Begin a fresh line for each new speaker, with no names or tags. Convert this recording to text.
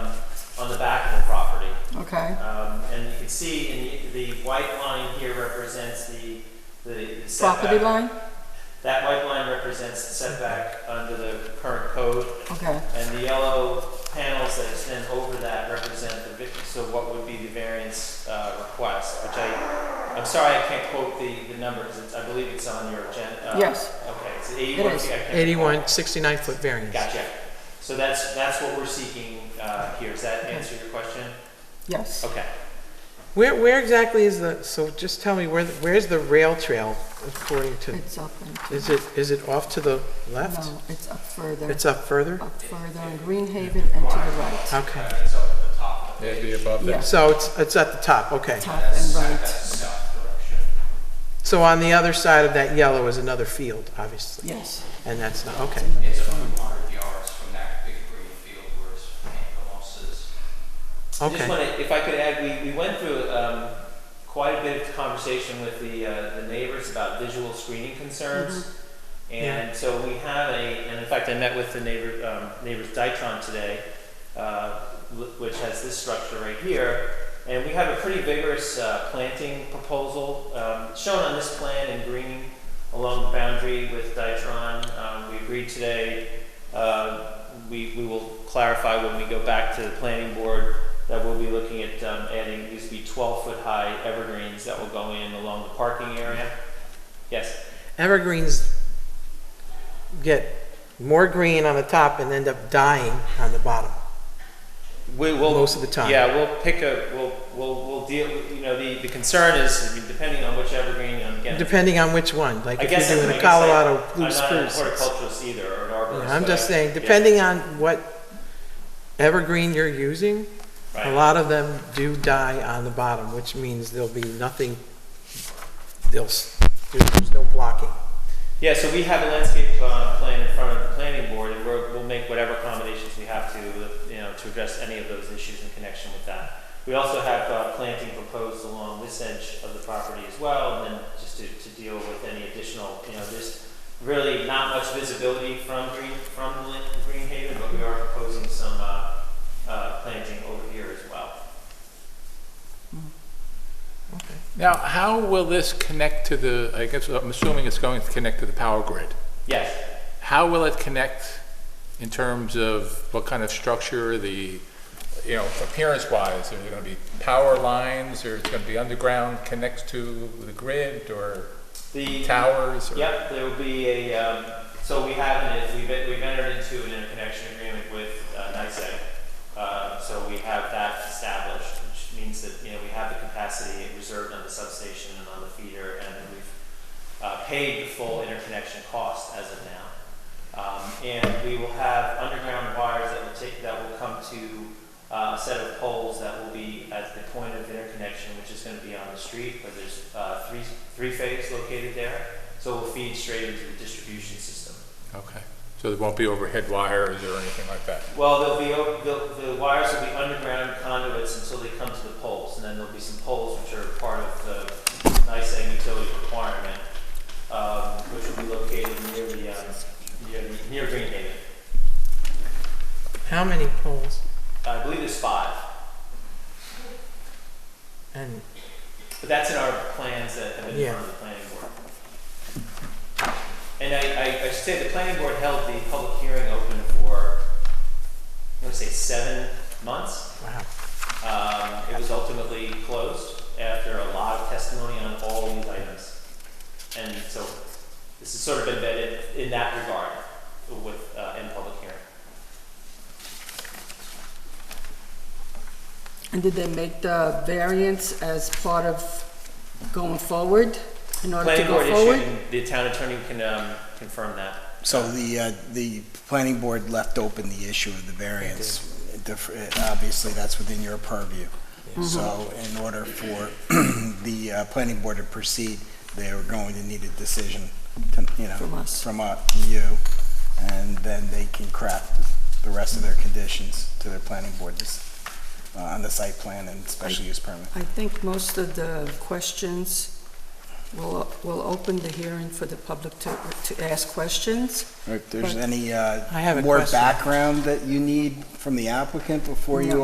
Okay.
Um, And you can see in the, the white line here represents the, the setback.
Property line?
That white line represents the setback under the current code,
Okay,
and the yellow panels that extend over that represent the, vi- so what would be the variance uh, request, which I, I'm sorry, I can't quote the, the number, because I believe it's on your agenda. Uh,
Yes.
Okay, it's 81
It is.
feet. I can't recall.
81, 69-foot variance.
Gotcha. So that's, that's what we're seeking uh, here. Does that answer your question?
yes.
Okay.
Where, where exactly is the, so just tell me, where, the- where's the rail trail according to,
It's up and,
is it, is it off to the left?
no, it's up further,
It's up further?
up further in Greenhaven and to the right.
Okay.
It'd be above that.
Yes,
So it's, it's at the top, okay.
top and right,
So on the other side of that yellow is another field, obviously,
yes.
and that's not, okay.
It's a few hundred yards from that big green field where it's losses.
I Just
Okay,
want to, if I could add, we, we went through um, quite a bit of conversation with the, uh, the neighbors about visual screening concerns. And so we have a, and in fact, I met with the neighbor, um, neighbors Dytron today, uh, wh- which has this structure right here. And we have a pretty vigorous uh, planting proposal um, shown on this plan in green along the boundary with Dytron. Um, we agreed today. Uh, we, we will clarify when we go back to the planning board that we'll be looking at um, adding these will be 12 foot high evergreens that will go in along the parking area. Yes.
evergreens get more green on the top and end up dying on the bottom.
We will
Most of the time.
Yeah, we'll pick a we'll we'll we'll deal. You know, the the concern is I mean, depending on which evergreen and again.
Depending on which one, like
I
if
guess
you're
I-
doing
I
a
guess I-
Colorado blue
I'm not a
spruce. it's-
horticulturist either or an arborist.
I'm
but
just
I-
saying,
yeah,
depending on what evergreen you're using, a
right.
lot of them do die on the bottom, which means there'll be nothing, they'll, s- there's no blocking.
Yeah, so we have a landscape uh, plan in front of the planning board, and we're, we'll make whatever accommodations we have to, uh, you know, to address any of those issues in connection with that. We also have uh, planting proposed along this edge of the property as well, and then just to, to deal with any additional, you know, there's really not much visibility from Green, from Lin- Green Haven, but we are proposing some uh, uh, planting over here as well.
Now, how will this connect to the, I guess, I'm assuming it's going to connect to the power grid.
Yes.
How will it connect in terms of what kind of structure, the, you know, appearance-wise? Are there going to be power lines, or it's going to be underground, connects to the grid, or
The,
towers? or-
Yep, there will be a, um, so we have, an- we've, we've entered into an interconnection agreement with, uh, NICEAG. Uh, so we have that established, which means that, you know, we have the capacity reserved on the substation and on the feeder, and we've, uh, paid the full interconnection cost as of now. Um, and we will have underground wires that will take, that will come to, uh, a set of poles that will be at the point of interconnection, which is gonna be on the street, where there's, uh, three, three phase located there. So it will feed straight into the distribution system.
Okay, so there won't be overhead wires or anything like that?
Well, there'll be, o- the, the wires will be underground conduits until they come to the poles, and then there'll be some poles which are part of the NICEAG utility requirement, um, which will be located near the, um, near, the- near Green Haven.
How many poles?
I believe there's five,
And,
but that's in our plans that have been in front of the planning board. And I, I, I should say the planning board held the public hearing open for, I'm gonna say seven months?
wow,
Um, It was ultimately closed after a lot of testimony on all these items. And so this has sort of embedded in that regard with, uh, in public hearing.
And did they make the variance as part of going forward, in order to
Planning board
go forward?
issued, and the town attorney can um, confirm that.
So the, uh, the planning board left open the issue of the variance. Def- Obviously, that's within your purview. So in order for the uh, planning board to proceed, they were going to need a decision, to- you know,
From us.
From uh, you, and then they can craft the rest of their conditions to their planning board this- uh, on the site plan and special use permit.
I think most of the questions, will will open the hearing for the public to, to ask questions.
If there's
But-
any uh,
I have a
more
question.
background that you need from the applicant before you
No.